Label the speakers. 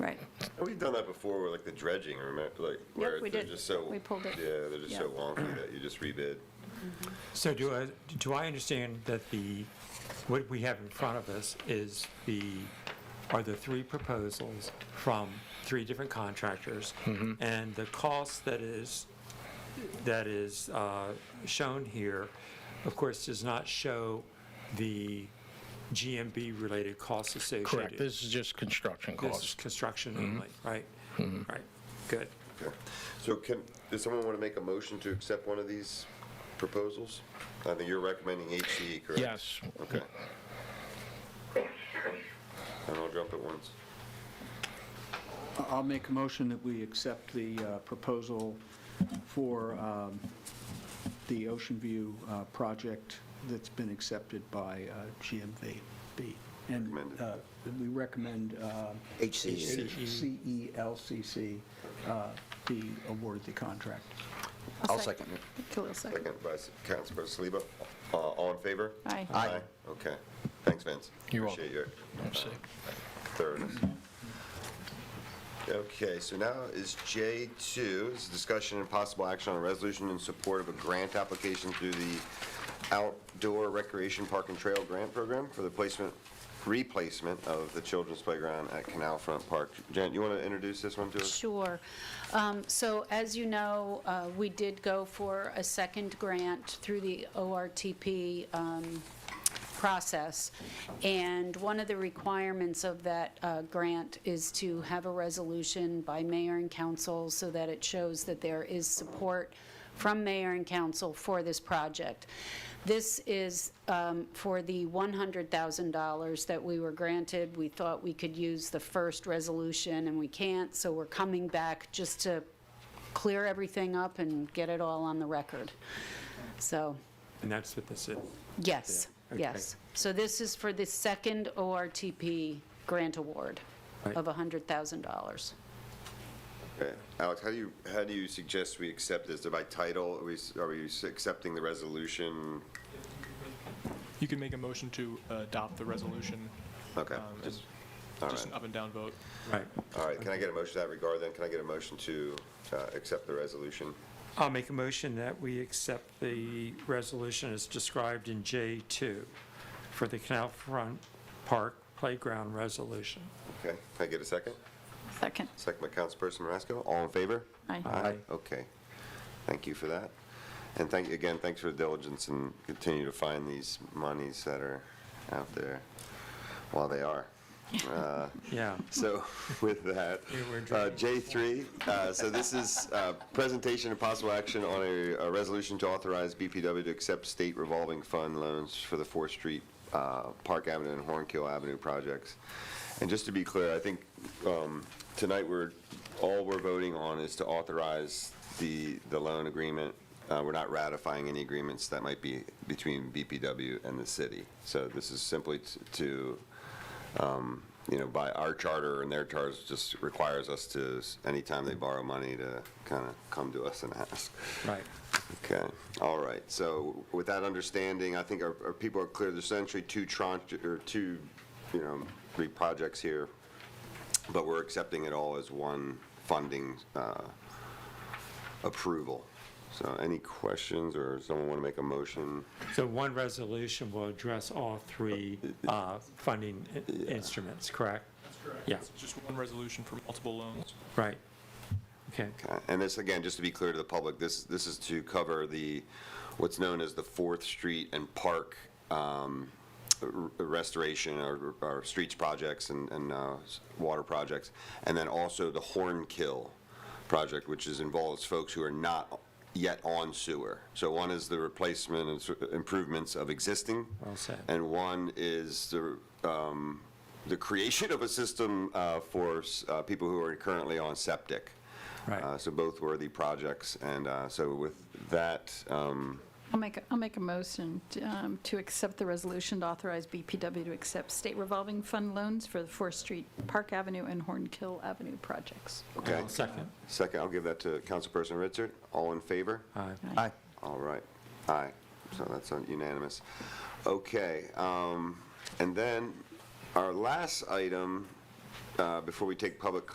Speaker 1: We've done that before with like the dredging, remember, like, where
Speaker 2: we
Speaker 1: they're
Speaker 2: did.
Speaker 1: just so.
Speaker 2: We pulled it.
Speaker 1: Yeah, they're just
Speaker 2: Yeah.
Speaker 1: so wonky that you just rebid.
Speaker 3: So do I, do I understand that the, what we have in front of us is the, are the three proposals from three different contractors?
Speaker 4: Mm-hmm.
Speaker 3: And the cost that is, that is uh, shown here, of course, does not show the GMB-related costs associated.
Speaker 4: Correct. This is Mm-hmm. just construction
Speaker 3: This is
Speaker 4: costs.
Speaker 3: construction only, right?
Speaker 4: Mm-hmm.
Speaker 3: Right, good.
Speaker 1: Okay. So can, does someone want to make a motion to accept one of these proposals? I think you're recommending HCE, correct?
Speaker 4: Yes.
Speaker 1: Okay. And I'll jump at once.
Speaker 5: I'll make a motion that we accept the uh, proposal for um, the Ocean View uh, project that's been accepted by uh, GMVB. And
Speaker 1: Recommended.
Speaker 5: uh, we recommend uh, E
Speaker 6: HCE.
Speaker 5: CELCC uh, be awarded the contract.
Speaker 6: I'll second it.
Speaker 2: Khalil will second.
Speaker 1: Second by Council President Saliba. Uh, All in favor?
Speaker 2: Aye.
Speaker 6: Aye.
Speaker 1: Okay. Thanks, Vince.
Speaker 4: You're welcome.
Speaker 1: Appreciate your thoroughness. Okay, so now is J2, is discussion and possible action on a resolution in support of a grant application through the Outdoor Recreation Park and Trail Grant Program for the placement, replacement of the children's playground at Canal Front Park. Jen, you want to introduce this one to us?
Speaker 7: Sure. Um, So as you know, uh, we did go for a second grant through the ORTP um, process, and one of the requirements of that uh, grant is to have a resolution by mayor and council so that it shows that there is support from mayor and council for this project. This is um, for the $100,000 that we were granted. We thought we could use the first resolution, and we can't, so we're coming back just to clear everything up and get it all on the record. So,
Speaker 3: And that's what this is.
Speaker 7: yes,
Speaker 3: Yeah, okay.
Speaker 7: yes. So this is for the second ORTP grant award
Speaker 3: Right.
Speaker 7: of $100,000.
Speaker 1: Okay. Alex, how do you, how do you suggest we accept this? By title, are we, are we accepting the resolution?
Speaker 8: You can make a motion to adopt the resolution.
Speaker 1: Okay,
Speaker 8: um, and
Speaker 1: just, all
Speaker 8: Just
Speaker 1: right.
Speaker 8: an up and down vote.
Speaker 3: Right,
Speaker 1: All right, can I get a motion in that regard then? Can I get a motion to uh, accept the resolution?
Speaker 3: I'll make a motion that we accept the resolution as described in J2 for the Canal Front Park Playground Resolution.
Speaker 1: Okay, can I get a second?
Speaker 2: Second.
Speaker 1: Second by Councilperson Marasco, all in favor?
Speaker 2: Aye.
Speaker 1: Aye, okay. Thank you for that. And thank, again, thanks for the diligence and continue to find these monies that are out there while they are. Uh,
Speaker 3: Yeah.
Speaker 1: So with that, uh, J3, uh, so this is uh, presentation and possible action on a a resolution to authorize BPW to accept state revolving fund loans for the 4th Street, uh, Park Avenue, and Hornkill Avenue projects. And just to be clear, I think um, tonight we're, all we're voting on is to authorize the the loan agreement. Uh, We're not ratifying any agreements that might be between BPW and the city. So this is simply t- to um, you know, by our charter and their charters just requires us to, s- anytime they borrow money, to kind of come to us and ask.
Speaker 3: Right.
Speaker 1: Okay, all right, so with that understanding, I think our, our people are clear, there's essentially two tranche, or two, you know, three projects here, but we're accepting it all as one funding uh, approval. So any questions, or someone want to make a motion?
Speaker 3: So one resolution will address all three uh, funding i- instruments, correct? That's correct. Yeah,
Speaker 8: It's just one resolution for multiple loans.
Speaker 3: right. Okay,
Speaker 1: Uh, And this, again, just to be clear to the public, this, this is to cover the, what's known as the Fourth Street and Park um, r- restoration or, or streets projects and, and uh, s- water projects, and then also the Hornkill project, which is involves folks who are not yet on sewer. So one is the replacement and s- improvements of existing.
Speaker 3: Well said.
Speaker 1: And one is the, um, the creation of a system uh, for s- uh, people who are currently on septic.
Speaker 3: Right.
Speaker 1: Uh, So both worthy projects, and uh, so with that, um,
Speaker 2: I'll make, a- I'll make a motion to, um, to accept the resolution to authorize BPW to accept state revolving fund loans for the Fourth Street, Park Avenue, and Hornkill Avenue projects.
Speaker 1: okay.
Speaker 3: I'll second.
Speaker 1: Second, I'll give that to Councilperson Richard. All in favor?
Speaker 3: Aye.
Speaker 6: Aye.
Speaker 1: All right, aye. So that's unanimous. Okay, um, and then our last item, uh, before we take public